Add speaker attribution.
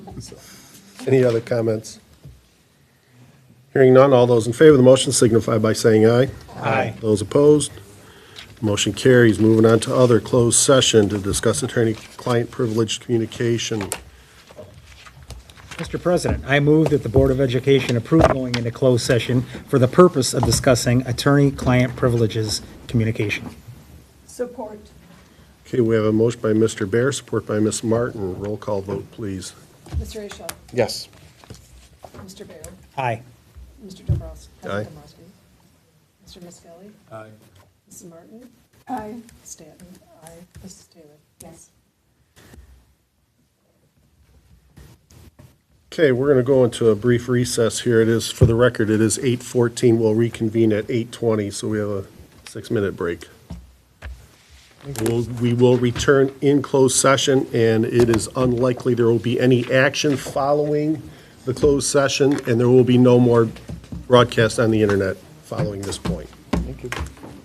Speaker 1: So, Any other comments? Hearing none, all those in favor of the motion signify by saying aye.
Speaker 2: Aye.
Speaker 1: Those opposed? Motion carries. Moving on to other closed session to discuss attorney-client privileged communication.
Speaker 2: Mr. President, I move that the Board of Education approve going into closed session for the purpose of discussing attorney-client privileges communication.
Speaker 3: Support.
Speaker 1: Okay, we have a motion by Mr. Bear, support by Ms. Martin. Roll call vote, please.
Speaker 3: Mr. Asia?
Speaker 4: Yes.
Speaker 3: Mr. Baer?
Speaker 2: Aye.
Speaker 3: Mr. Dombrowski?
Speaker 1: Aye.
Speaker 3: Dombrowski? Mr. Miskelly? Aye. Mrs. Martin? Aye. Stanton? Aye. Mrs. Taylor? Yes.
Speaker 1: Okay, we're going to go into a brief recess here. It is, for the record, it is 8:14. We'll reconvene at 8:20, so we have a six-minute break. We'll- We will return in closed session, and it is unlikely there will be any action following the closed session, and there will be no more broadcast on the internet following this point.
Speaker 4: Thank you.